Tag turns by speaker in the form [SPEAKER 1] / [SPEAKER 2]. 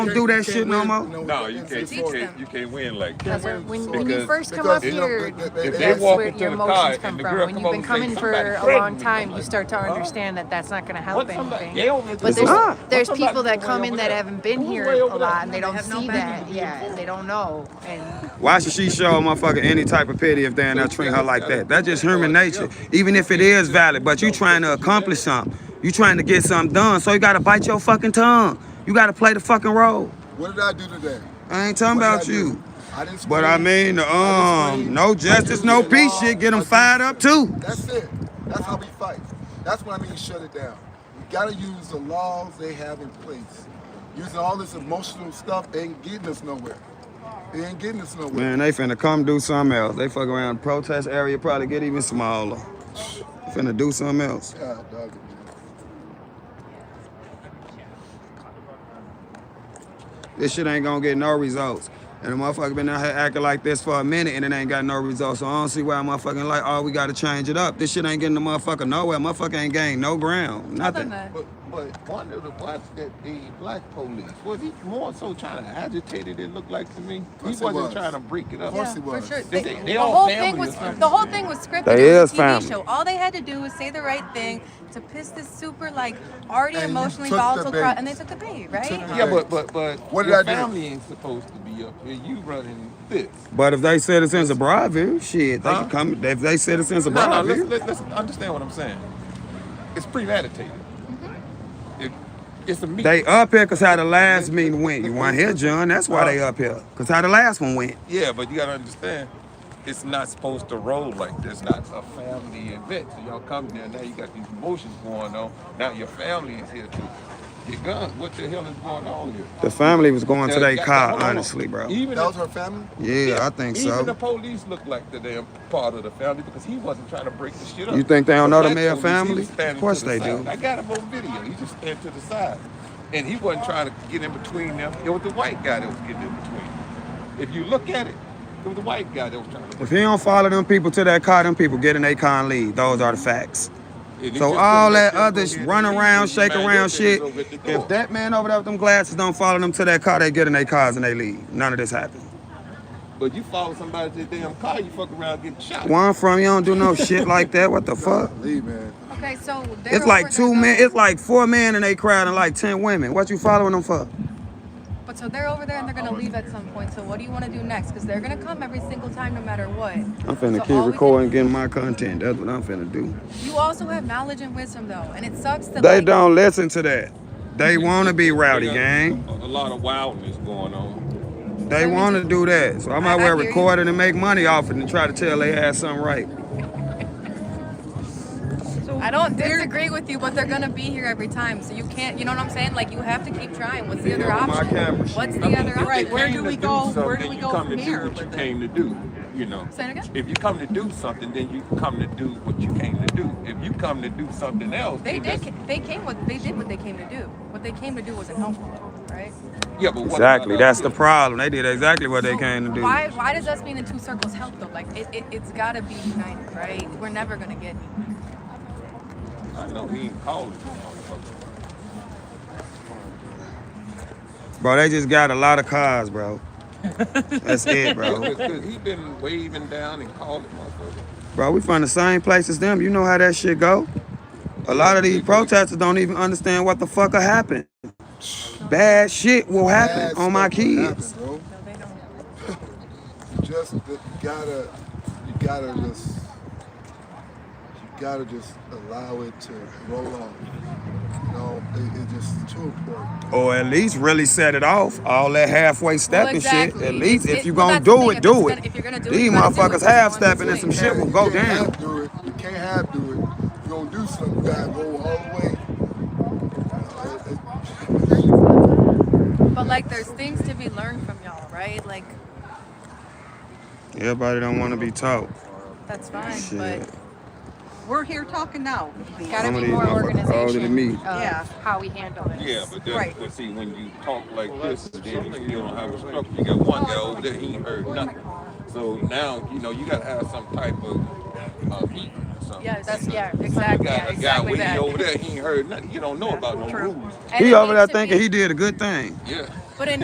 [SPEAKER 1] don't do that shit no more.
[SPEAKER 2] No, you can't. You can't. You can't win like
[SPEAKER 3] Because
[SPEAKER 2] that.
[SPEAKER 3] when, when, when you
[SPEAKER 2] Because-
[SPEAKER 3] first come
[SPEAKER 2] because
[SPEAKER 3] up
[SPEAKER 2] it-
[SPEAKER 3] here,
[SPEAKER 2] if they
[SPEAKER 3] that's
[SPEAKER 2] walk
[SPEAKER 3] where
[SPEAKER 2] into
[SPEAKER 3] your
[SPEAKER 2] the car
[SPEAKER 3] emotions come
[SPEAKER 2] and the
[SPEAKER 3] from.
[SPEAKER 2] girl
[SPEAKER 3] When
[SPEAKER 2] come
[SPEAKER 3] you've
[SPEAKER 2] over
[SPEAKER 3] been
[SPEAKER 2] and say,
[SPEAKER 3] coming for
[SPEAKER 2] "Somebody
[SPEAKER 3] a
[SPEAKER 2] threatened
[SPEAKER 3] long
[SPEAKER 2] me,"
[SPEAKER 3] time,
[SPEAKER 2] I'm
[SPEAKER 3] you
[SPEAKER 2] like,
[SPEAKER 3] start to
[SPEAKER 2] "Huh?"
[SPEAKER 3] understand that that's not going to help
[SPEAKER 2] What's somebody-
[SPEAKER 3] anything.
[SPEAKER 2] they over to
[SPEAKER 3] But
[SPEAKER 2] the door.
[SPEAKER 3] there's,
[SPEAKER 2] What's
[SPEAKER 3] there's
[SPEAKER 2] somebody
[SPEAKER 3] people that
[SPEAKER 2] way
[SPEAKER 3] come
[SPEAKER 2] over
[SPEAKER 3] in that
[SPEAKER 2] there?
[SPEAKER 3] haven't been
[SPEAKER 2] Who's
[SPEAKER 3] here
[SPEAKER 2] way
[SPEAKER 3] a
[SPEAKER 2] over there?
[SPEAKER 3] lot and they don't
[SPEAKER 4] have no
[SPEAKER 3] see
[SPEAKER 4] backing
[SPEAKER 3] that. Yeah, they don't know. And
[SPEAKER 1] Why should she show a motherfucker any type of pity if they ain't not treating her like that? That's just human nature. Even if it is valid, but you trying to accomplish something. You trying to get something done, so you gotta bite your fucking tongue. You gotta play the fucking role.
[SPEAKER 5] What did I do today?
[SPEAKER 1] I ain't talking
[SPEAKER 5] What did I
[SPEAKER 1] about
[SPEAKER 5] do?
[SPEAKER 1] you.
[SPEAKER 5] I didn't
[SPEAKER 1] But
[SPEAKER 5] scream.
[SPEAKER 1] I mean,
[SPEAKER 5] I
[SPEAKER 1] um,
[SPEAKER 5] didn't
[SPEAKER 1] no
[SPEAKER 5] scream. I
[SPEAKER 1] justice,
[SPEAKER 5] didn't
[SPEAKER 1] no
[SPEAKER 5] get
[SPEAKER 1] peace
[SPEAKER 5] involved.
[SPEAKER 1] shit. Get them
[SPEAKER 5] I didn't-
[SPEAKER 1] fired up too.
[SPEAKER 5] That's it. That's how we fight. That's what I mean shut it down. We gotta use the laws they have in place. Using all this emotional stuff ain't getting us nowhere. It ain't getting us nowhere.
[SPEAKER 1] Man, they finna come do something else. They fuck around the protest area, probably get even smaller. Finna do something else.
[SPEAKER 5] God, dog.
[SPEAKER 1] This shit ain't gonna get no results. And the motherfucker been out here acting like this for a minute and it ain't got no results. So I don't see why a motherfucking like, oh, we gotta change it up. This shit ain't getting the motherfucker nowhere. Motherfucker ain't gained no ground. Nothing.
[SPEAKER 2] But, but one of the parts that the black police was he more so trying to agitate it. It looked like to me. He
[SPEAKER 5] Yes, he
[SPEAKER 2] wasn't
[SPEAKER 5] was.
[SPEAKER 2] trying to break it up.
[SPEAKER 5] Of course he was.
[SPEAKER 4] For sure.
[SPEAKER 2] They-
[SPEAKER 4] They,
[SPEAKER 2] they
[SPEAKER 4] the
[SPEAKER 2] all
[SPEAKER 4] whole
[SPEAKER 2] family
[SPEAKER 4] thing was
[SPEAKER 2] or something.
[SPEAKER 4] the whole thing was scripted.
[SPEAKER 1] They
[SPEAKER 4] it was
[SPEAKER 1] is
[SPEAKER 4] a TV
[SPEAKER 1] family.
[SPEAKER 4] show. All they had to do was say the right thing to piss this super like already
[SPEAKER 5] And you
[SPEAKER 4] emotionally
[SPEAKER 5] took the
[SPEAKER 4] volatile
[SPEAKER 5] bait.
[SPEAKER 4] crowd, and they took the bait, right?
[SPEAKER 5] took the
[SPEAKER 2] Yeah, but but but
[SPEAKER 5] What did
[SPEAKER 2] your
[SPEAKER 5] I do?
[SPEAKER 2] family ain't supposed to be up here. You running this.
[SPEAKER 1] But if they citizens of Broadview, shit, they
[SPEAKER 2] Huh?
[SPEAKER 1] can come. If they citizens of
[SPEAKER 2] No, no. Let's,
[SPEAKER 1] Broadview,
[SPEAKER 2] let's, let's understand what I'm saying. It's premeditated.
[SPEAKER 3] Mm-hmm.
[SPEAKER 2] It, it's a meeting.
[SPEAKER 1] they up here because how the last meeting went. You want to hear, John? That's why
[SPEAKER 2] Oh.
[SPEAKER 1] they up here. Because how the last one went.
[SPEAKER 2] Yeah, but you gotta understand, it's not supposed to roll like this. Not a family event. So y'all come there now. You got these emotions going on. Now your family is here too. Your guns. What the hell is going on here?
[SPEAKER 1] The family was going to
[SPEAKER 2] Now,
[SPEAKER 1] their
[SPEAKER 2] got-
[SPEAKER 1] car,
[SPEAKER 2] hold on.
[SPEAKER 1] honestly, bro.
[SPEAKER 2] Even
[SPEAKER 5] That was
[SPEAKER 2] if-
[SPEAKER 5] her family?
[SPEAKER 1] Yeah, I think
[SPEAKER 2] even the
[SPEAKER 1] so.
[SPEAKER 2] police look like the damn part of the family because he wasn't trying to break the shit up.
[SPEAKER 1] You think they don't
[SPEAKER 2] But
[SPEAKER 1] know the
[SPEAKER 2] that
[SPEAKER 1] Mayer
[SPEAKER 2] police, he
[SPEAKER 1] family?
[SPEAKER 2] was standing
[SPEAKER 1] Of course
[SPEAKER 2] to the
[SPEAKER 1] they
[SPEAKER 2] side.
[SPEAKER 1] do.
[SPEAKER 2] I got him on video. He just stand to the side, and he wasn't trying to get in between them. It was the white guy that was getting in between. If you look at it, it was the white guy that was trying to.
[SPEAKER 1] If he don't follow them people to that car, them people get in their car and leave. Those are the facts.
[SPEAKER 2] And he
[SPEAKER 1] So
[SPEAKER 2] just
[SPEAKER 1] all
[SPEAKER 2] gonna let
[SPEAKER 1] that
[SPEAKER 2] them
[SPEAKER 1] other
[SPEAKER 2] go ahead
[SPEAKER 1] run
[SPEAKER 2] and
[SPEAKER 1] around,
[SPEAKER 2] leave.
[SPEAKER 1] shake
[SPEAKER 2] Man, your
[SPEAKER 1] around
[SPEAKER 2] shit
[SPEAKER 1] shit.
[SPEAKER 2] is over at the door.
[SPEAKER 1] If that man over there with them glasses don't follow them to that car, they get in their cars and they leave. None of this happened.
[SPEAKER 2] But you follow somebody to the damn car, you fuck around getting shot.
[SPEAKER 1] Where I'm from, you don't do no shit like that. What the fuck?
[SPEAKER 5] Leave, man.
[SPEAKER 4] Okay, so they
[SPEAKER 1] It's
[SPEAKER 4] were
[SPEAKER 1] like
[SPEAKER 4] over
[SPEAKER 1] two
[SPEAKER 4] there,
[SPEAKER 1] men.
[SPEAKER 4] though.
[SPEAKER 1] It's like four men in a crowd and like ten women. What you following them for?
[SPEAKER 4] But so they're over there and they're gonna leave at some point. So what do you want to do next? Because they're gonna come every single time, no matter what.
[SPEAKER 1] I'm finna
[SPEAKER 4] So all
[SPEAKER 1] keep
[SPEAKER 4] we can-
[SPEAKER 1] recording, getting my content. That's what I'm finna do.
[SPEAKER 4] You also have knowledge and wisdom though, and it sucks that
[SPEAKER 1] They
[SPEAKER 4] like,
[SPEAKER 1] don't listen to that. They wanna be rowdy,
[SPEAKER 2] They got
[SPEAKER 1] gang.
[SPEAKER 2] A, a lot of wildness going on.
[SPEAKER 1] They wanna do that. So I might
[SPEAKER 4] I- I
[SPEAKER 1] well
[SPEAKER 4] hear you.
[SPEAKER 1] record it and make money off it and try to tell they had something right.
[SPEAKER 4] I don't disagree with you, but they're gonna be here every time. So you can't, you know what I'm saying? Like you have to keep trying. What's the
[SPEAKER 1] Get
[SPEAKER 4] other
[SPEAKER 1] off my
[SPEAKER 4] option?
[SPEAKER 1] camera.
[SPEAKER 4] What's the
[SPEAKER 2] I mean,
[SPEAKER 4] other
[SPEAKER 2] if
[SPEAKER 4] option?
[SPEAKER 2] you
[SPEAKER 6] Right, where
[SPEAKER 2] came
[SPEAKER 6] do
[SPEAKER 2] to
[SPEAKER 6] we go-
[SPEAKER 2] something,
[SPEAKER 6] where do we
[SPEAKER 2] you
[SPEAKER 6] go
[SPEAKER 2] come
[SPEAKER 6] from
[SPEAKER 2] to
[SPEAKER 6] here
[SPEAKER 2] Do what you
[SPEAKER 6] with
[SPEAKER 2] came to do, you know.
[SPEAKER 4] Say it again?
[SPEAKER 2] If you come to do something, then you come to do what you came to do. If you come to do something else,
[SPEAKER 4] They
[SPEAKER 2] it
[SPEAKER 4] did.
[SPEAKER 2] just-
[SPEAKER 4] They came. What they did. What they came to do. What they came to do wasn't helpful, right?
[SPEAKER 2] Yeah, but what about
[SPEAKER 1] Exactly.
[SPEAKER 2] us
[SPEAKER 1] That's the
[SPEAKER 2] here?
[SPEAKER 1] problem. They did exactly what they
[SPEAKER 4] So
[SPEAKER 1] came to do.
[SPEAKER 4] Why? Why does us being in two circles help though? Like it, it, it's gotta be united, right? We're never gonna get.
[SPEAKER 2] I know he ain't calling. motherfucker.
[SPEAKER 1] Bro, they just got a lot of cars, bro. That's it, bro.
[SPEAKER 2] Cause, 'cause he been waving down and calling motherfucker.
[SPEAKER 1] Bro, we from the same place as them. You know how that shit go. A lot of these protesters don't even understand what the fuck happened. Bad shit will happen
[SPEAKER 5] Bad
[SPEAKER 1] on my
[SPEAKER 5] stuff will happen,
[SPEAKER 1] kids.
[SPEAKER 5] bro.
[SPEAKER 4] No, they don't.
[SPEAKER 5] just you gotta you gotta just you gotta just allow it to roll on. You know, it, it just too important.
[SPEAKER 1] Or at least really set it off. All that halfway stepping shit.
[SPEAKER 4] exactly.
[SPEAKER 1] At least
[SPEAKER 4] It's-
[SPEAKER 1] if you
[SPEAKER 4] well,
[SPEAKER 1] gonna
[SPEAKER 4] that's the
[SPEAKER 1] do
[SPEAKER 4] thing.
[SPEAKER 1] it, do
[SPEAKER 4] If it's gonna- if you're gonna
[SPEAKER 1] it.
[SPEAKER 4] do it,
[SPEAKER 1] These
[SPEAKER 4] you gotta do it.
[SPEAKER 1] motherfuckers
[SPEAKER 4] It's one
[SPEAKER 1] half stepping and
[SPEAKER 4] swing.
[SPEAKER 1] some shit will
[SPEAKER 5] You
[SPEAKER 1] go
[SPEAKER 5] can't
[SPEAKER 1] down.
[SPEAKER 5] half do it. You can't half do it. You gonna do something. You gotta go all the way. It- it-
[SPEAKER 4] But like, there's things to be learned from y'all, right? Like
[SPEAKER 1] Everybody don't wanna be taught.
[SPEAKER 4] that's fine,
[SPEAKER 1] Shit.
[SPEAKER 4] but
[SPEAKER 6] We're here talking now.
[SPEAKER 4] gotta
[SPEAKER 1] Some of
[SPEAKER 4] be
[SPEAKER 1] these
[SPEAKER 4] more
[SPEAKER 1] motherfuckers
[SPEAKER 4] organization.
[SPEAKER 1] older than me.
[SPEAKER 4] of
[SPEAKER 6] Yeah.
[SPEAKER 4] How we handle this.
[SPEAKER 2] Yeah, but that's,
[SPEAKER 6] Right.
[SPEAKER 2] but see, when you talk like this, then you still don't have a structure. You got one guy over there, he ain't heard
[SPEAKER 6] Oh
[SPEAKER 2] nothing. So now, you know, you gotta have some type of, uh, meeting or something.
[SPEAKER 4] Yeah, that's yeah,
[SPEAKER 2] You
[SPEAKER 4] exactly, yeah,
[SPEAKER 2] got a guy
[SPEAKER 4] exactly
[SPEAKER 2] waiting
[SPEAKER 4] that.
[SPEAKER 2] over there, he ain't heard nothing. You don't know about no rules.
[SPEAKER 4] And
[SPEAKER 1] He
[SPEAKER 4] it
[SPEAKER 1] over there
[SPEAKER 4] needs to
[SPEAKER 1] thinking
[SPEAKER 4] be-
[SPEAKER 1] he did a good thing.
[SPEAKER 2] Yeah.